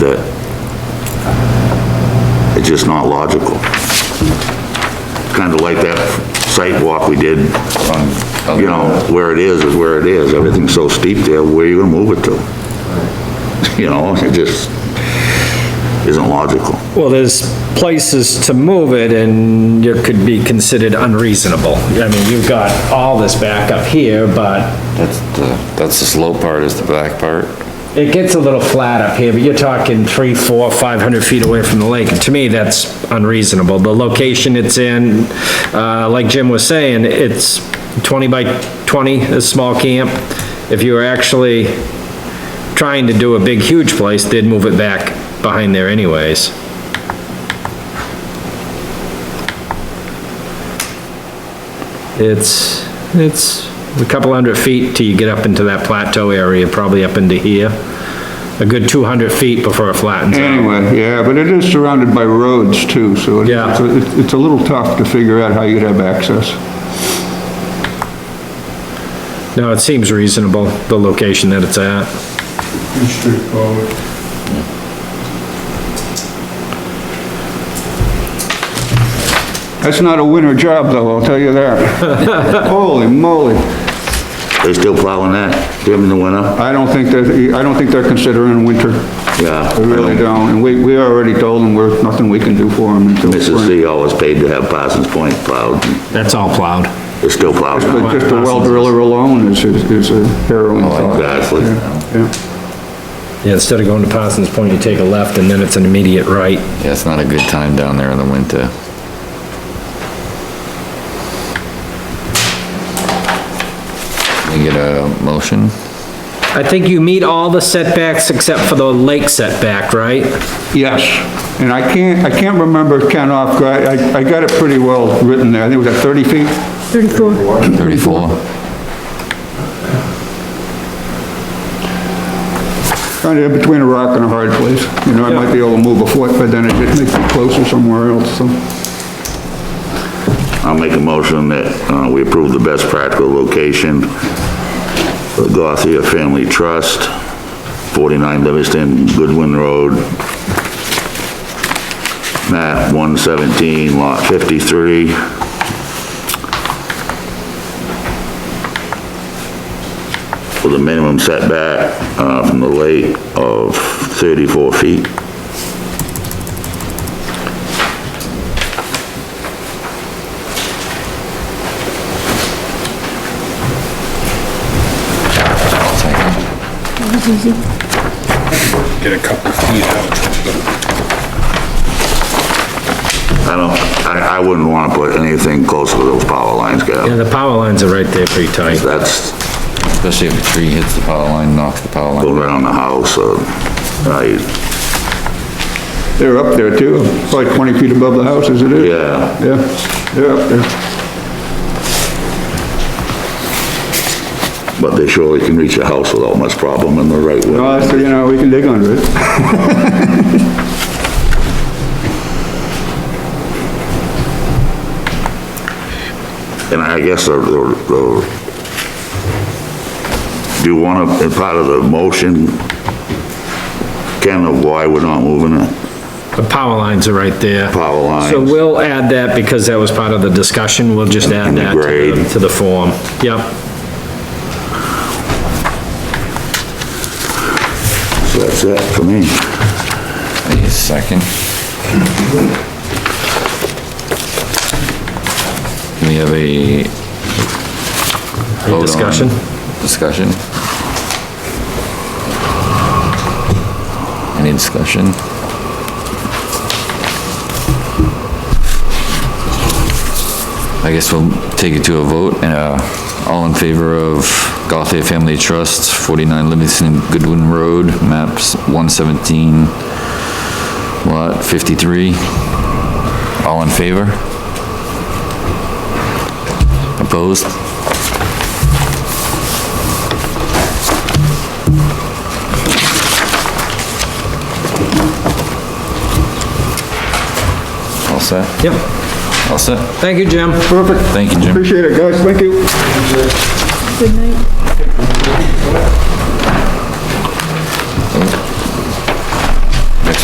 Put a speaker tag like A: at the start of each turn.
A: that it's just not logical. Kind of like that site walk we did on, you know, where it is is where it is. Everything's so steep there, where are you gonna move it to? You know, it just isn't logical.
B: Well, there's places to move it and it could be considered unreasonable. I mean, you've got all this back up here, but
C: That's the, that's the slow part, is the back part.
B: it gets a little flat up here, but you're talking three, four, five hundred feet away from the lake. And to me, that's unreasonable. The location it's in, uh, like Jim was saying, it's twenty by twenty, a small camp. If you were actually trying to do a big, huge place, they'd move it back behind there anyways. It's, it's a couple hundred feet till you get up into that plateau area, probably up into here. A good 200 feet before it flattens out.
D: Anyway, yeah, but it is surrounded by roads too, so it-
B: Yeah.
D: it's, a- it's a little tough to figure out how you'd have access.
B: No, it seems reasonable, the location that it's at.
E: Pretty straightforward.
D: That's not a winter job though, I'll tell you that. Holy moly.
A: They still plowing that, Jim, in the winter?
D: I don't think that, I don't think they're considering winter.
A: Yeah.
D: I really don't. And we, we already told them we're, nothing we can do for them until
A: Mrs.
D: spring.
A: C always paid to have Parsons Point plowed.
B: That's all plowed.
A: They're still plowing. now.
D: But just a well driller alone is, is a harrowing thought.
A: Exactly.
D: Yeah.
B: Yeah, instead of going to Parsons Point, you take a left and then it's an immediate right.
C: Yeah, it's not a good time down there in the winter. We get a motion?
B: I think you meet all the setbacks except for the lake setback, right?
D: Yes, and I can't, I can't remember Ken off, guard. I, I got it pretty well written there, I think it was at 30 feet?
F: 34.
C: Thirty-four?
D: Kind of between a rock and a hard place, you know, I might be able to move a foot, but then it makes me closer somewhere else, so.
A: I'll make a motion that uh, we approve the best practical location for Gothia Family Trust, 49 Livingston, Goodwin Road, map 117, lot 53. With a minimum setback uh, from the lake of 34 feet.
E: Get a couple feet out.
A: I don't, I I wouldn't want to put anything close to those power lines, Gav.
B: Yeah, the power lines are right there pretty tight.
A: That's
C: Especially if a tree hits the power line, knocks the power line.
A: going around the house, uh, I,
D: They're up there too, probably 20 feet above the house as it is.
A: yeah.
D: Yeah, they're up there.
A: But they surely can reach a house without much problem in the right way.
D: No, that's, you know, we can dig under it.
A: And I guess the, the- the, do you want to, part of the motion, Ken, of why we're not moving the
B: The power lines are right there.
A: power
B: So
A: lines?
B: we'll add that because that was part of the discussion. We'll just add
A: And the
B: that to
A: grade.
B: the, to the form. Yep.
A: So That's it for me.
C: Wait a second. We have a. vote on-
B: discussion?
C: Discussion. Any discussion? I guess we'll take it to a vote, and, uh, all in favor of Gothia Family Trust, 49 Livingston Goodwin Road, maps 117, lot 53. All in favor? Opposed? All set?
B: Yep.
C: All set?
B: Thank you, Jim.
D: Perfect,
C: Thank you, Jim.
D: appreciate it, guys, thank you.
F: Good night.